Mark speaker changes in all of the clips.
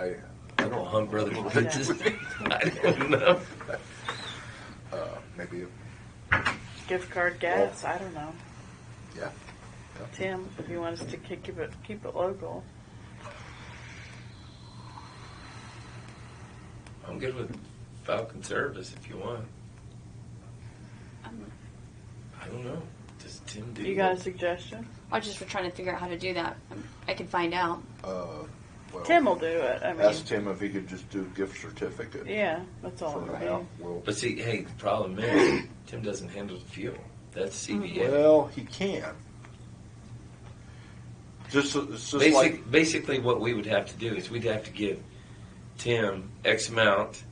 Speaker 1: I,
Speaker 2: I don't hunt brothers' pitches. I don't know.
Speaker 1: uh, maybe,
Speaker 3: Gift card gas, I don't know.
Speaker 1: yeah. yeah.
Speaker 3: Tim, if you want us to ki- keep it, keep it local.
Speaker 2: I'm good with Falcon Service if you want.
Speaker 4: Um,
Speaker 2: I don't know. Does Tim do
Speaker 3: You got a suggestion?
Speaker 4: I was just trying to figure out how to do that. Um, I could find out.
Speaker 1: Uh, well,
Speaker 3: Tim will do it, I mean,
Speaker 1: Ask Tim if he could just do gift certificate.
Speaker 3: yeah, that's all
Speaker 1: For
Speaker 3: it'll
Speaker 1: now,
Speaker 3: be.
Speaker 1: well,
Speaker 2: But see, hey, the problem is Tim doesn't handle the fuel. That's
Speaker 3: Mm-hmm.
Speaker 2: CBA.
Speaker 1: well, he can. Just, it's just
Speaker 2: Basic,
Speaker 1: like,
Speaker 2: basically, what we would have to do is we'd have to give Tim X amount,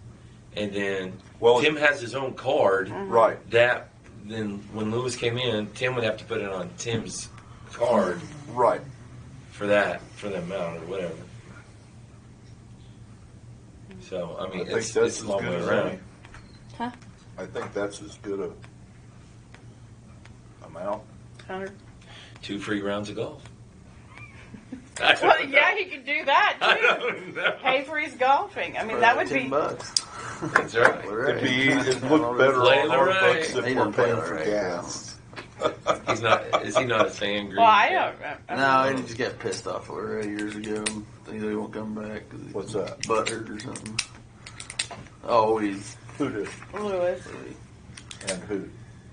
Speaker 2: and then
Speaker 1: Well-
Speaker 2: Tim has his own card.
Speaker 3: Mm-hmm.
Speaker 1: right,
Speaker 2: That then, when Lewis came in, Tim would have to put it on Tim's card
Speaker 1: right.
Speaker 2: for that for the amount or whatever. So I
Speaker 1: I
Speaker 2: mean,
Speaker 1: think
Speaker 2: it's,
Speaker 1: that's
Speaker 2: it's
Speaker 1: as
Speaker 2: a long
Speaker 1: good
Speaker 2: way
Speaker 1: as
Speaker 2: around.
Speaker 1: any.
Speaker 4: Huh?
Speaker 1: I think that's as good a amount.
Speaker 3: Hundred-
Speaker 2: Two free rounds of golf. I don't
Speaker 3: Well, yeah,
Speaker 2: know.
Speaker 3: he could do that
Speaker 2: I
Speaker 3: too.
Speaker 2: don't know.
Speaker 3: Pay for his golfing, I mean, that would
Speaker 5: ten
Speaker 3: be,
Speaker 5: bucks.
Speaker 2: That's right.
Speaker 1: It'd be, it'd look better
Speaker 2: Play
Speaker 1: on
Speaker 2: the
Speaker 1: our
Speaker 2: right.
Speaker 1: books
Speaker 5: They
Speaker 1: if we're
Speaker 5: don't play
Speaker 1: paying
Speaker 5: the
Speaker 1: for
Speaker 5: right,
Speaker 1: gas.
Speaker 2: He's not. Is he not a fan?
Speaker 3: well, I don't, I- I
Speaker 5: No, I just got pissed off over it years ago. Think they won't come back. 'cause he
Speaker 1: What's that?
Speaker 5: Butthurt or something. Oh, Always.
Speaker 1: Who did
Speaker 3: Lewis,
Speaker 1: and who?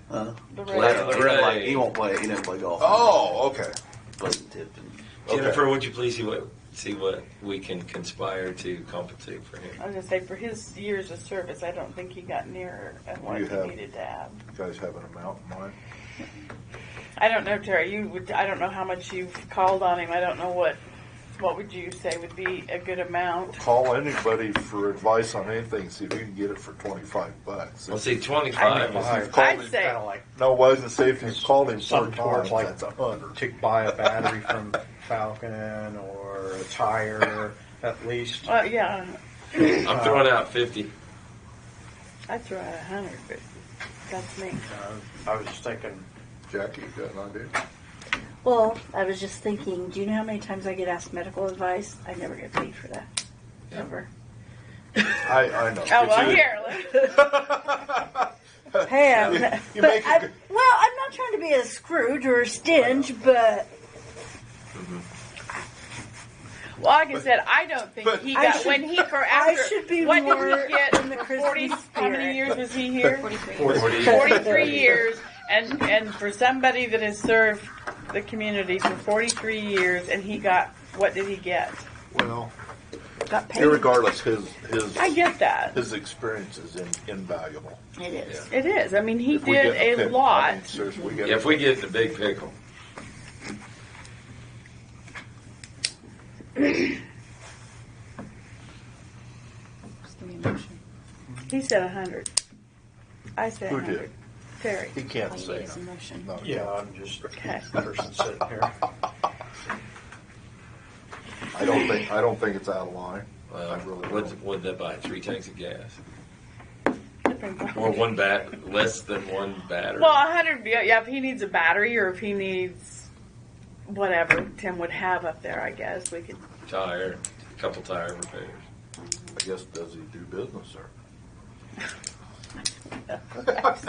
Speaker 5: Huh?
Speaker 3: the
Speaker 2: Larry.
Speaker 3: red.
Speaker 5: He don't like- he won't play. He doesn't play golf.
Speaker 1: Oh, okay.
Speaker 5: plays Tipton.
Speaker 1: Okay.
Speaker 2: Jennifer, would you please see what see what we can conspire to compensate for him?
Speaker 3: I was gonna say, for his years of service, I don't think he got near at what
Speaker 1: You
Speaker 3: he
Speaker 1: have-
Speaker 3: needed to have.
Speaker 1: You guys have an amount in mind?
Speaker 3: I don't know, Terry, you would, I don't know how much you've called on him, I don't know what, what would you say would be a good amount?
Speaker 1: Call anybody for advice on anything, see if you can get it for twenty-five bucks.
Speaker 2: Let's say twenty five.
Speaker 1: If you've called
Speaker 3: I'd
Speaker 1: him-
Speaker 3: say-
Speaker 6: Kind of like
Speaker 1: No, it wasn't safe. He's called him four
Speaker 6: something towards
Speaker 1: times.
Speaker 6: like
Speaker 1: That's a hundred.
Speaker 6: to buy a battery from Falcon or a tire at least.
Speaker 3: Well, yeah,
Speaker 2: I'm throwing out fifty.
Speaker 3: I'd throw out a hundred, but that's me.
Speaker 6: Uh, I was thinking
Speaker 1: Jackie, you got an idea?
Speaker 7: Well, I was just thinking, do you know how many times I get asked medical advice? I never get paid for that. Never.
Speaker 1: I, I know.
Speaker 3: Oh,
Speaker 1: It's
Speaker 3: well,
Speaker 1: you.
Speaker 3: here,
Speaker 7: Hey, I'm,
Speaker 1: You- you
Speaker 7: but
Speaker 1: make a
Speaker 7: I,
Speaker 1: good-
Speaker 7: well, I'm not trying to be a Scrooge or a Stinge, but
Speaker 3: well, like I said, I don't think
Speaker 1: But-
Speaker 3: he
Speaker 7: I
Speaker 3: got,
Speaker 7: should-
Speaker 3: when he, for
Speaker 7: I
Speaker 3: after,
Speaker 7: should be
Speaker 3: what
Speaker 7: more
Speaker 3: did he get,
Speaker 7: in the
Speaker 3: for forty,
Speaker 7: Christmas
Speaker 3: how many
Speaker 7: spirit.
Speaker 3: years was he here?
Speaker 4: 43.
Speaker 3: Forty-three years, and, and for somebody that has served the community for forty-three years, and he got, what did he get?
Speaker 1: Well,
Speaker 7: got paid.
Speaker 1: irregardless, his his
Speaker 3: I get that,
Speaker 1: his experience is in, invaluable.
Speaker 7: It is.
Speaker 3: it is, I mean, he
Speaker 1: If we
Speaker 3: did
Speaker 1: get the
Speaker 3: a
Speaker 1: pick, I
Speaker 3: lot,
Speaker 1: mean, seriously, we get
Speaker 2: Yeah, if we get the big pickle,
Speaker 4: Just give me a motion.
Speaker 3: he said a hundred. I said
Speaker 1: Who
Speaker 3: a
Speaker 1: did?
Speaker 3: hundred. Terry,
Speaker 1: he
Speaker 4: All
Speaker 1: can't
Speaker 4: you need
Speaker 1: say
Speaker 4: is a motion.
Speaker 1: no.
Speaker 6: Yeah, I'm just a
Speaker 3: Okay.
Speaker 6: person sitting here.
Speaker 1: I don't think I don't think it's out of line. I
Speaker 2: well,
Speaker 1: really
Speaker 2: what's,
Speaker 1: don't.
Speaker 2: what'd that buy? Three tanks of gas,
Speaker 3: depends on.
Speaker 2: or one bat, less than one battery.
Speaker 3: Well, a hundred. Yeah, yeah, if he needs a battery or if he needs whatever Tim would have up there, I guess we could.
Speaker 2: tire, a couple tire repairs.
Speaker 1: I guess does he do business sir?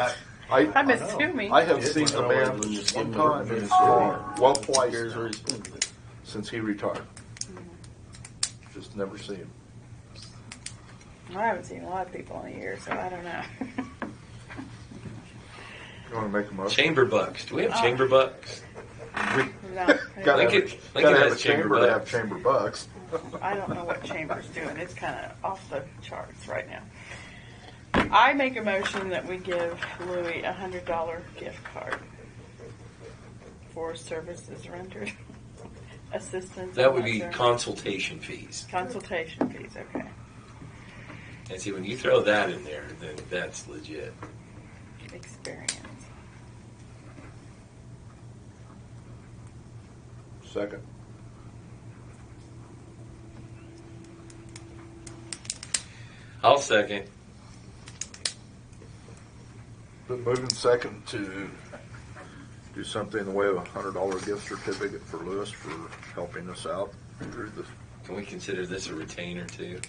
Speaker 1: I,
Speaker 3: I'm
Speaker 1: I-
Speaker 3: assuming.
Speaker 1: I have
Speaker 5: It's
Speaker 1: seen the
Speaker 5: one
Speaker 1: man
Speaker 5: of those
Speaker 1: one
Speaker 5: similar
Speaker 1: time in his
Speaker 5: things.
Speaker 1: car, well, twice
Speaker 5: Here's
Speaker 1: now,
Speaker 5: where he's been.
Speaker 1: since he retired. Just never seen him.
Speaker 3: I haven't seen a lot of people in a year, so I don't know.
Speaker 1: You want to make a motion?
Speaker 2: Chamber bucks. Do we have
Speaker 3: Oh.
Speaker 2: chamber bucks?
Speaker 3: No,
Speaker 1: Gotta have,
Speaker 2: Lincoln-
Speaker 1: a-
Speaker 2: Lincoln
Speaker 1: gotta have
Speaker 2: has
Speaker 1: a
Speaker 2: chamber
Speaker 1: chamber to have
Speaker 2: bucks.
Speaker 1: chamber bucks.
Speaker 3: I don't know what Chamber's doing. It's kind of off the charts right now. I make a motion that we give Louis a hundred dollar gift card for services rendered, assistance.
Speaker 2: That
Speaker 3: I'm
Speaker 2: would
Speaker 3: not
Speaker 2: be
Speaker 3: sure.
Speaker 2: consultation fees.
Speaker 3: consultation fees. Okay.
Speaker 2: And see, when you throw that in there, then that's legit.
Speaker 3: Experience.
Speaker 1: Second.
Speaker 2: I'll second.
Speaker 1: Been moving second to do something in the way of a hundred dollar gift certificate for Lewis for helping us out through the
Speaker 2: Can we consider this a retainer too?